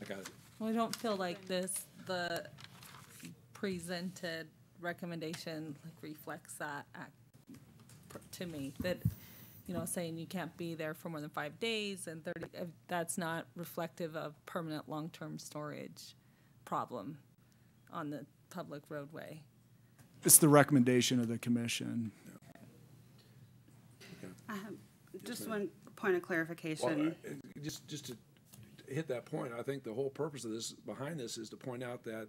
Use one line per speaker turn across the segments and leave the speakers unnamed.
I got it.
We don't feel like this, the presented recommendation like reflects that act pr- to me, that, you know, saying you can't be there for more than five days and thirty, uh, that's not reflective of permanent long-term storage problem on the public roadway.
It's the recommendation of the commission.
Just one point of
Well,
clarification.
I- Just, just to hit that point, I think the whole purpose of this, behind this, is to point out that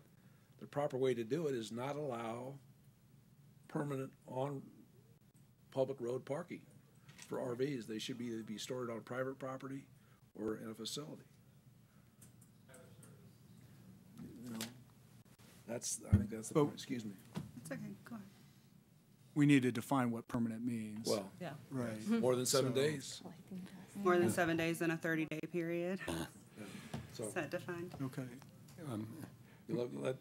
the proper way to do it is not allow permanent on public road parking for RVs. They should be, either be stored on private property or in a facility. You know, That's, I think that's the point,
But-
excuse me.
It's okay, go ahead.
We need to define what permanent means.
Well,
Yeah.
Right.
Mm-hmm.
more than seven
So-
days,
More than seven days in a thirty-day period.
so.
Is that defined?
Okay.
You let- let-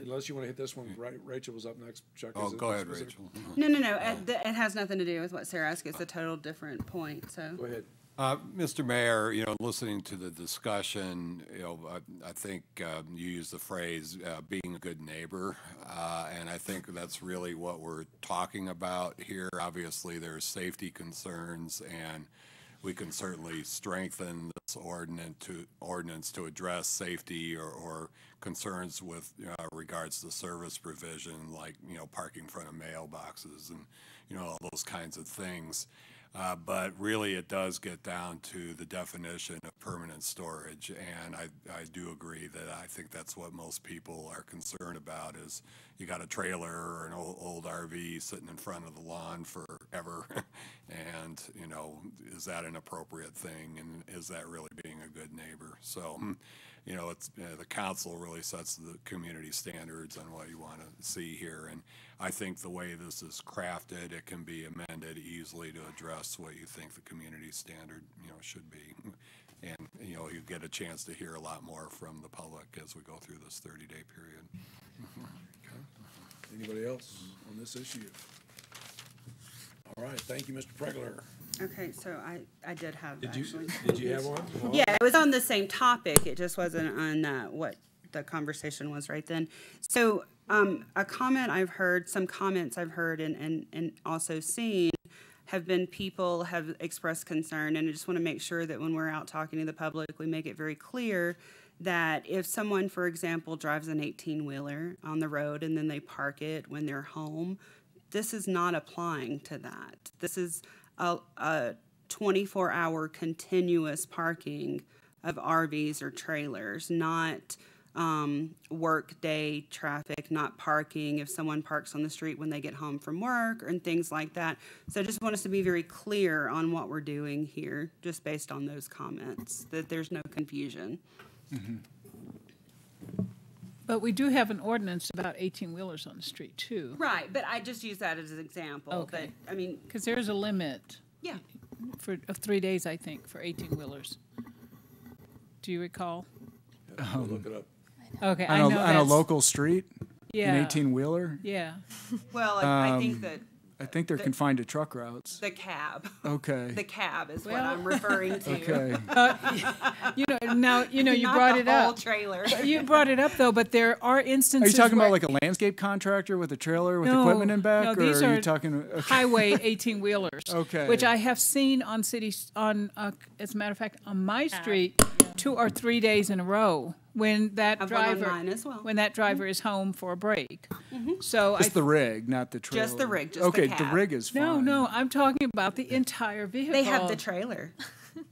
Unless you want to hit this one, Ra- Rachel was up next, Chuck.
Oh,
is it
go ahead,
specific?
Rachel.
No, no, no, it, th- it has nothing to do with what Sarah asked, it's a total different point,
Go
so.
ahead.
Uh, Mr. Mayor, you know, listening to the discussion, you know, I, I think um, you used the phrase uh, being a good neighbor. Uh, and I think that's really what we're talking about here. Obviously, there are safety concerns, and we can certainly strengthen this ordinance to, ordinance to address safety or, or concerns with uh, regards to service provision, like, you know, parking in front of mailboxes and, you know, all those kinds of things. Uh, but really, it does get down to the definition of permanent storage. And I, I do agree that I think that's what most people are concerned about is you got a trailer or an old, old RV sitting in front of the lawn forever. and, you know, is that an appropriate thing? And is that really being a good neighbor? So, hmm, you know, it's, uh, the council really sets the community standards on what you want to see here. And I think the way this is crafted, it can be amended easily to address what you think the community standard, you know, should be. And, you know, you get a chance to hear a lot more from the public as we go through this thirty-day period.
Anybody else on this issue? All right, thank you, Mr. Pregler.
Okay, so I, I did have
Did you,
actually.
did you have one? Well,
Yeah, it was on the same topic. It just wasn't on uh, what the conversation was right then. So, um, a comment I've heard, some comments I've heard and, and, and also seen have been people have expressed concern. And I just want to make sure that when we're out talking to the public, we make it very clear that if someone, for example, drives an 18 wheeler on the road and then they park it when they're home, this is not applying to that. This is a, a 24 hour continuous parking of RVs or trailers, not um, work day traffic, not parking if someone parks on the street when they get home from work and things like that. So I just want us to be very clear on what we're doing here, just based on those comments, that there's no confusion.
But we do have an ordinance about 18-wheelers on the street, too,
Right, but I just use that as an example.
Okay.
But I mean,
because there's a limit
yeah.
for, of three days, I think, for 18-wheelers. Do you recall?
Um,
we'll Look it up.
Okay, I
On
know
a, on a
that's-
local street? An
Yeah,
eighteen wheeler?
yeah.
Well, I, I
Um,
think that
I think they're confined to truck routes.
the cab, the
Okay.
cab is what
Well-
I'm referring to.
Okay.
You know, now, you know, you
Not
brought
the
it
whole
up.
Trailer.
You brought it up, though, but there are
Are you
instances
talking about
where
like a landscape contractor with a trailer with equipment
No,
in back?
no,
Or
these
are you
are-
talking, uh, okay,
highway 18-wheelers.
Okay.
Which I have seen on cities, on, uh, as a matter of fact, on my
Uh,
street, two or three days in a row, when that
I've one on
driver.
mine as well. Mm-hmm.
When that driver is home for a break. So I
just the rig, not the trailer?
Just the rig, just the
Okay, the
cab.
rig is fine.
No, no, I'm talking about the entire vehicle.
They have the trailer.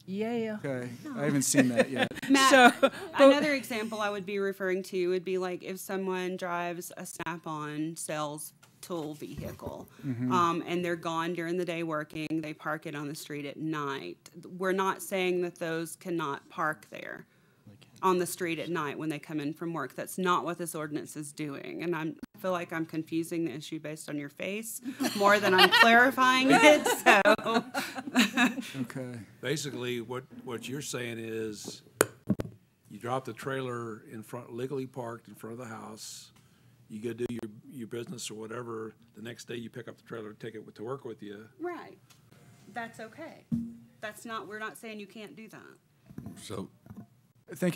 Yeah.
Okay, I haven't seen that yet.
Matt,
So,
another example I would be referring to would be like if someone drives a Snap-on sales tool vehicle, um, and they're gone during the day working, they park it on the street at night. We're not saying that those cannot park there on the street at night when they come in from work. That's not what this ordinance is doing, and I'm. I feel like I'm confusing the issue based on your face more than I'm clarifying it. So
Okay.
Basically, what, what you're saying is you drop the trailer in front, legally parked in front of the house. You go do your, your business or whatever. The next day you pick up the trailer, take it to work with you.
right, that's okay. That's not. We're not saying you can't do that.
So,
Thank